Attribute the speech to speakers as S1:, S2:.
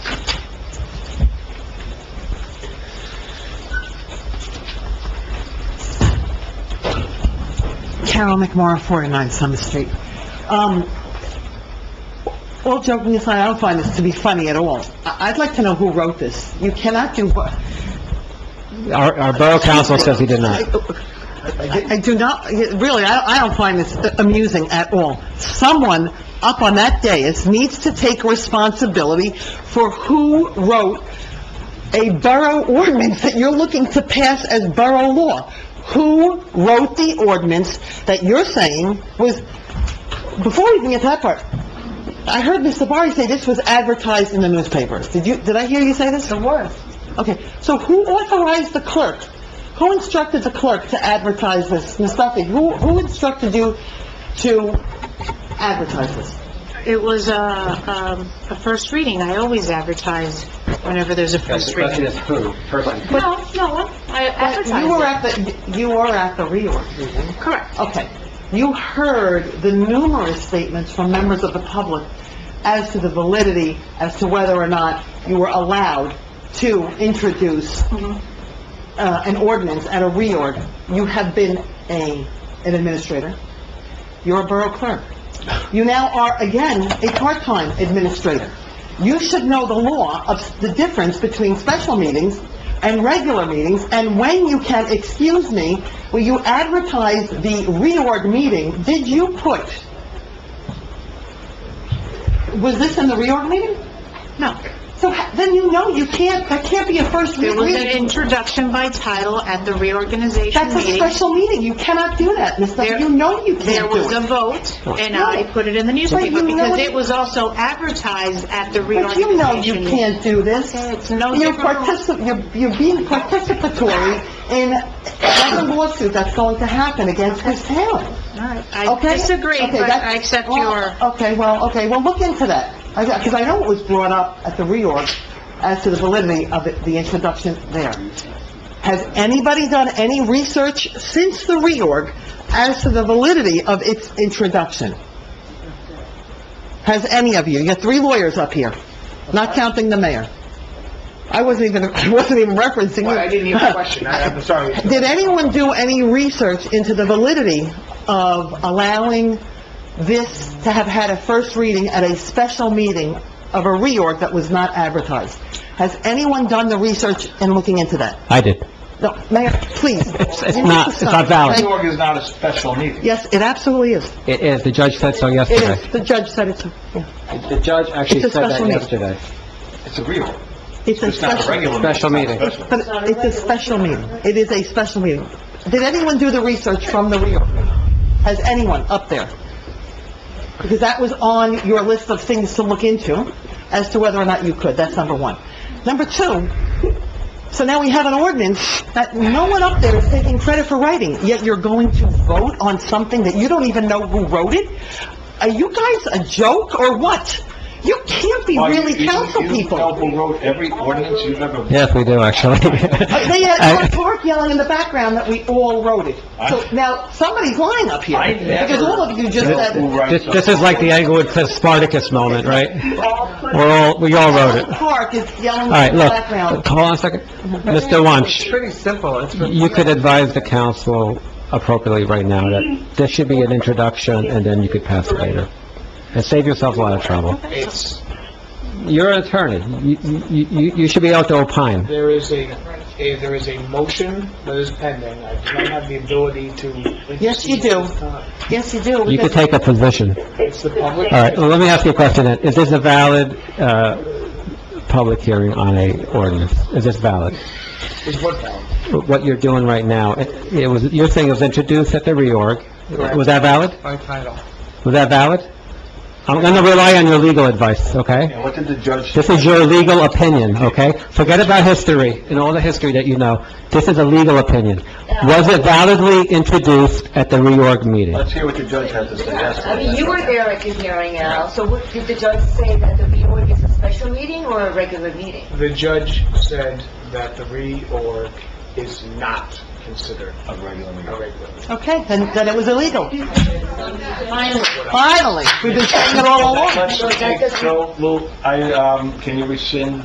S1: Carol McMorro, 49 Summer Street. Um, all joking aside, I don't find this to be funny at all. I- I'd like to know who wrote this. You cannot do what...
S2: Our, our borough council says he did not.
S1: I I do not, really, I I don't find this amusing at all. Someone up on that dais needs to take responsibility for who wrote a borough ordinance that you're looking to pass as borough law. Who wrote the ordinance that you're saying was, before we even get to that part, I heard Mr. Barry say this was advertised in the newspapers. Did you, did I hear you say this? It was. Okay, so who authorized the clerk? Who instructed the clerk to advertise this? Ms. Duffy, who, who instructed you to advertise this?
S3: It was a, um, a first reading. I always advertise whenever there's a first reading.
S2: is who, person?
S3: No, no, I
S1: You were
S3: advertise
S1: at the, you were at the reorg.
S3: it. Correct.
S1: Okay. You heard the numerous statements from members of the public as to the validity, as to whether or not you were allowed to introduce uh, an ordinance at a reorg. You have been a, an administrator. You're a borough clerk. You now are, again, a part-time administrator. You should know the law of the difference between special meetings and regular meetings, and when you can, excuse me, when you advertise the reorg meeting, did you put, was this in the reorg meeting?
S3: No.
S1: So ha- then you know you can't, that can't be a first
S3: There
S1: reading.
S3: was an introduction by title at the reorganization
S1: That's a
S3: meeting.
S1: special meeting, you cannot do that, Ms. Duffy,
S3: There-
S1: you know you
S3: There
S1: can't do it.
S3: was a vote, and I put it in the
S1: But
S3: newspaper
S1: you know
S3: because
S1: it-
S3: it was also advertised at the
S1: But you
S3: reorganization.
S1: know you can't do this.
S3: meeting. It's no
S1: You're
S3: different. from-
S1: partici, you're, you're being participatory in another lawsuit that's going to happen against this town,
S3: All right.
S1: okay?
S3: I disagree,
S1: Okay,
S3: but
S1: that's-
S3: I accept
S1: well,
S3: your...
S1: Okay, well, okay, well, look into that, because I know it was brought up at the reorg as to the validity of it- the introduction there. Has anybody done any research since the reorg as to the validity of its introduction? Has any of you? You got three lawyers up here, not counting the mayor. I wasn't even, I wasn't even referencing you.
S4: Well, I didn't hear the question, I- I'm sorry.
S1: Did anyone do any research into the validity of allowing this to have had a first reading at a special meeting of a reorg that was not advertised? Has anyone done the research in looking into that?
S2: I did.
S1: No, Mayor, please.
S2: It's- it's not- it's not valid.
S1: Thank-
S4: Reorg is not a special meeting.
S1: Yes, it absolutely is.
S2: It is, the judge said so
S1: It
S2: yesterday.
S1: is. The judge said it's, yeah.
S2: The judge actually
S1: It's a
S2: said that
S1: special meeting.
S2: yesterday.
S4: It's a reorg.
S1: It's a
S4: It's not a
S1: special,
S4: regular.
S2: Special meeting.
S4: It's not a special.
S1: but it's a special meeting. It is a special meeting. Did anyone do the research from the reorg? Has anyone up there? Because that was on your list of things to look into as to whether or not you could. That's number one. Number two, so now we have an ordinance that no one up there is taking credit for writing, yet you're going to vote on something that you don't even know who wrote it? Are you guys a joke or what? You can't be
S4: Well, you-
S1: really
S4: you-
S1: council people.
S4: You know who wrote every ordinance you've ever...
S2: Yes, we do, actually.
S1: Uh, They had Alan
S2: I-
S1: Clark yelling in the background that we all wrote it. So now, somebody's lying up here,
S4: I never
S1: because all of you just
S4: know
S1: said,
S4: who
S2: This
S4: writes
S2: this is like the Englewood Spartacus moment, right? We're all, we all wrote it.
S1: Alan Clark is yelling in
S2: All right,
S1: the
S2: look,
S1: background.
S2: hold on a second. Mr. Wunsch,
S5: pretty simple. It's been-
S2: you could advise the council appropriately right now that there should be an introduction, and then you could pass it later. And save yourself a lot of trouble.
S4: It's,
S2: You're an attorney. You, you, you- you should be able to opine.
S5: there is a, a- there is a motion that is pending. I do not have the ability to...
S1: Yes, you do. Yes, you do.
S2: You could
S1: because-
S2: take a position.
S5: It's the public...
S2: All right, well, let me ask you a question then. Is this a valid, uh, public hearing on a ordinance? Is this valid?
S5: Is what valid?
S2: What you're doing right now, it it was, your thing was introduced at the reorg. Was that valid?
S5: By title.
S2: Was that valid? I'm gonna rely on your legal advice, okay?
S4: and what did the judge...
S2: This is your legal opinion, okay? Forget about history and all the history that you know. This is a legal opinion. Was it validly introduced at the reorg meeting?
S4: Let's hear what the judge has to say. That's
S6: I mean, you were there at the hearing, Al, so what, did the judge say that the reorg is a special meeting or a regular meeting?
S5: The judge said that the reorg is not considered
S4: A regular
S5: a
S4: meeting.
S5: regular.
S1: Okay, then, then it was illegal. Finally, we've been saying it all along.
S4: Let's take- So, Lou, I, um, can you rescind